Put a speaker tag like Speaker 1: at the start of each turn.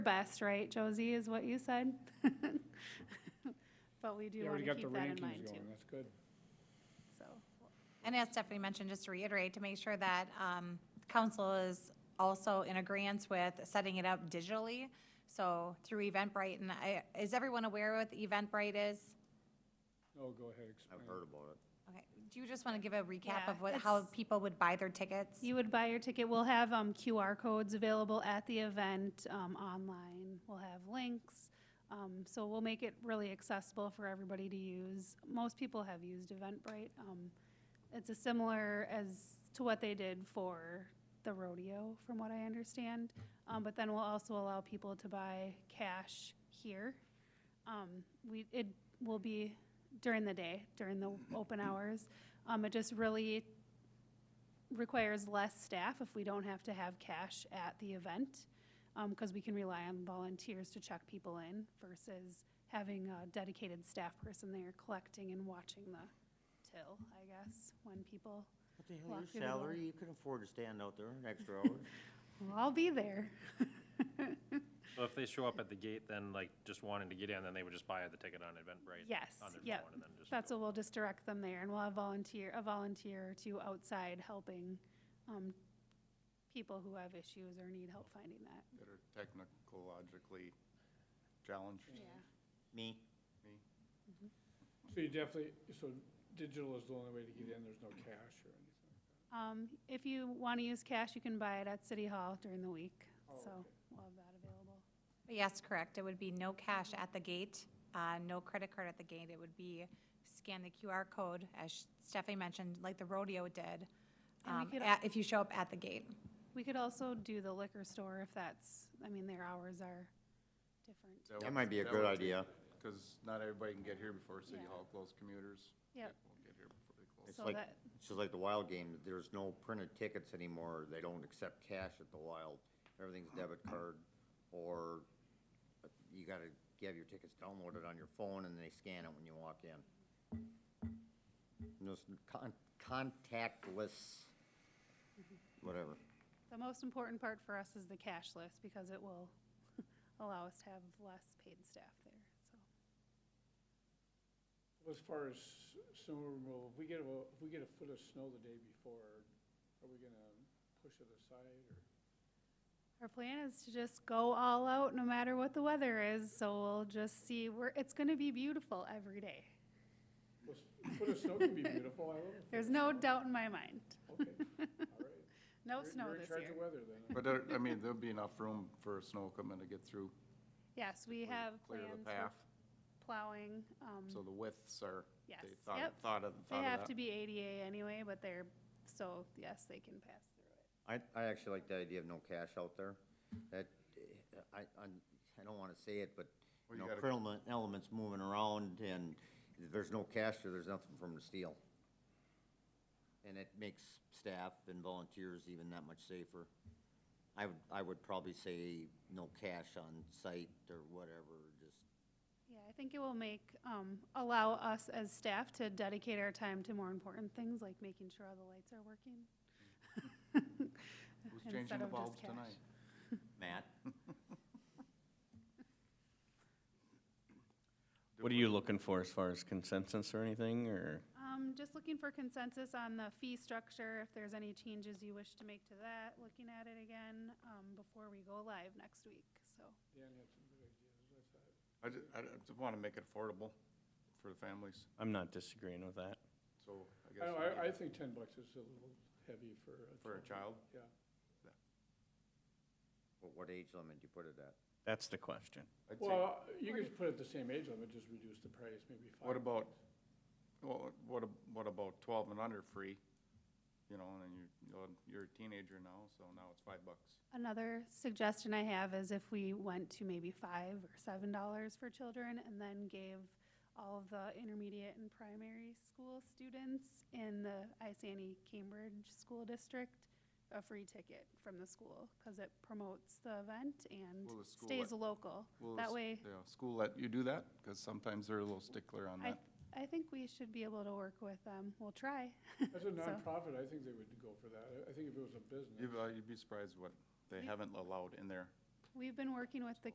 Speaker 1: best, right, Josie, is what you said? But we do
Speaker 2: You
Speaker 1: want
Speaker 2: already
Speaker 1: to
Speaker 2: got the
Speaker 1: keep that in mind
Speaker 2: rankings
Speaker 1: too,
Speaker 2: going, that's good.
Speaker 1: so.
Speaker 3: And as Stephanie mentioned, just to reiterate, to make sure that um, council is also in agreement with setting it up digitally. So through Eventbrite, and I, is everyone aware what Eventbrite is?
Speaker 2: Oh, go ahead, explain.
Speaker 4: I've heard about it.
Speaker 3: Okay, do you just want to give a recap
Speaker 1: Yeah,
Speaker 3: of what, how
Speaker 1: it's-
Speaker 3: people would buy their tickets?
Speaker 1: You would buy your ticket, we'll have um, QR codes available at the event, um, online, we'll have links. Um, So we'll make it really accessible for everybody to use. Most people have used Eventbrite. Um, It's a similar as to what they did for the rodeo, from what I understand. Um, But then we'll also allow people to buy cash here. Um, we, it will be during the day, during the open hours. Um, it just really requires less staff if we don't have to have cash at the event, um, cause we can rely on volunteers to check people in versus having a dedicated staff person there collecting and watching the till, I guess, when people,
Speaker 4: What the
Speaker 1: Walk
Speaker 4: hell,
Speaker 1: through
Speaker 4: your
Speaker 1: the door.
Speaker 4: salary, you can afford to stand out there an extra hour.
Speaker 1: well, I'll be there.
Speaker 5: So if they show up at the gate, then like just wanting to get in, then they would just buy the ticket on Eventbrite?
Speaker 1: Yes,
Speaker 5: on their
Speaker 1: yep.
Speaker 5: phone, and then just
Speaker 1: That's
Speaker 5: go.
Speaker 1: what we'll just direct them there, and we'll have volunteer, a volunteer or two outside helping um, people who have issues or need help finding that.
Speaker 6: that are technologically challenged.
Speaker 4: Me,
Speaker 2: So you definitely, so digital is the only way to get in, there's no cash or anything.
Speaker 1: Um, If you want to use cash, you can buy it at City Hall during the week,
Speaker 2: Oh,
Speaker 1: so
Speaker 2: okay.
Speaker 1: we'll have that available.
Speaker 3: Yes, correct. It would be no cash at the gate, uh, no credit card at the gate. It would be scan the QR code, as Stephanie mentioned, like the rodeo did,
Speaker 1: And we
Speaker 3: um,
Speaker 1: could-
Speaker 3: at- if you show up at the gate.
Speaker 1: We could also do the liquor store if that's, I mean, their hours are different.
Speaker 4: that might be a good idea.
Speaker 6: Because not everybody can get here before City
Speaker 1: Yeah.
Speaker 6: Hall closes commuters.
Speaker 1: Yep.
Speaker 6: Won't get here before they close.
Speaker 4: It's
Speaker 1: So
Speaker 4: like,
Speaker 1: that-
Speaker 4: it's just like the wild game, there's no printed tickets anymore, they don't accept cash at the wild. Everything's debit card, or you gotta have your tickets downloaded on your phone and they scan it when you walk in. And Those con- contactless, whatever.
Speaker 1: The most important part for us is the cashless, because it will allow us to have less paid staff there, so.
Speaker 2: As far as snow removal, if we get, a- if we get a foot of snow the day before, are we gonna push it aside or?
Speaker 1: Our plan is to just go all out no matter what the weather is, so we'll just see, we're, it's gonna be beautiful every day.
Speaker 2: Well, s- Foot of snow can be beautiful, I love it.
Speaker 1: There's no doubt in my mind.
Speaker 2: Okay, all right.
Speaker 1: No
Speaker 2: You're-
Speaker 1: snow
Speaker 2: You're in
Speaker 1: this
Speaker 2: charge
Speaker 1: year.
Speaker 2: of weather then.
Speaker 6: But there, I mean, there'll be enough room for snow equipment to get through,
Speaker 1: Yes, we have
Speaker 6: clear
Speaker 1: plans
Speaker 6: the path,
Speaker 1: for plowing. um,
Speaker 6: so the widths are, they
Speaker 1: Yes,
Speaker 6: thought,
Speaker 1: yep.
Speaker 6: thought of,
Speaker 1: They
Speaker 6: thought
Speaker 1: have
Speaker 6: of
Speaker 1: to
Speaker 6: that.
Speaker 1: be ADA anyway, but they're, so yes, they can pass through it.
Speaker 4: I, I actually like the idea of no cash out there. That, eh, I, I, I don't wanna say it, but,
Speaker 6: Well,
Speaker 4: you
Speaker 6: you
Speaker 4: know,
Speaker 6: gotta-
Speaker 4: criminal elements moving around and there's no cash there, there's nothing for them to steal. And it makes staff and volunteers even that much safer. I would, I would probably say no cash on site or whatever, just,
Speaker 1: Yeah, I think it will make, um, allow us as staff to dedicate our time to more important things, like making sure all the lights are working.
Speaker 6: Who's changing the
Speaker 1: instead of just
Speaker 6: bulbs
Speaker 1: cash.
Speaker 6: tonight?
Speaker 4: Matt?
Speaker 7: What are you looking for as far as consensus or anything, or?
Speaker 1: Um, just looking for consensus on the fee structure, if there's any changes you wish to make to that, looking at it again, um, before we go live next week, so.
Speaker 2: Dan had some good ideas, I thought.
Speaker 6: I just, I just want to make it affordable for the families,
Speaker 7: I'm not disagreeing with that.
Speaker 6: so I
Speaker 2: I don't
Speaker 6: guess. we
Speaker 2: know, I, I
Speaker 6: need it
Speaker 2: think ten bucks is a little heavy for a.
Speaker 6: For a child,
Speaker 2: Yeah.
Speaker 4: What, what age limit do you put it at?
Speaker 7: That's the question.
Speaker 6: I'd say,
Speaker 2: Well, you could just put it the same age limit, just reduce the price, maybe five.
Speaker 6: what about, well, what, ab- what about twelve and under free? You know, and then you, you'll- you're a teenager now, so now it's five bucks.
Speaker 1: Another suggestion I have is if we went to maybe five or seven dollars for children and then gave all of the intermediate and primary school students in the Isani E Cambridge School District a free ticket from the school, cause it promotes the event and
Speaker 6: Will the school
Speaker 1: stays
Speaker 6: let-
Speaker 1: local.
Speaker 6: Will the
Speaker 1: That
Speaker 6: s-
Speaker 1: way,
Speaker 6: Yeah, school let you do that? Because sometimes they're a little stickler on
Speaker 1: I,
Speaker 6: that.
Speaker 1: I think we should be able to work with them. We'll try.
Speaker 2: As
Speaker 1: So-
Speaker 2: a nonprofit, I think they would go for that. I- I think if it was a business.
Speaker 6: You'd, uh, you'd be surprised what they haven't allowed in there.
Speaker 1: We've been working with the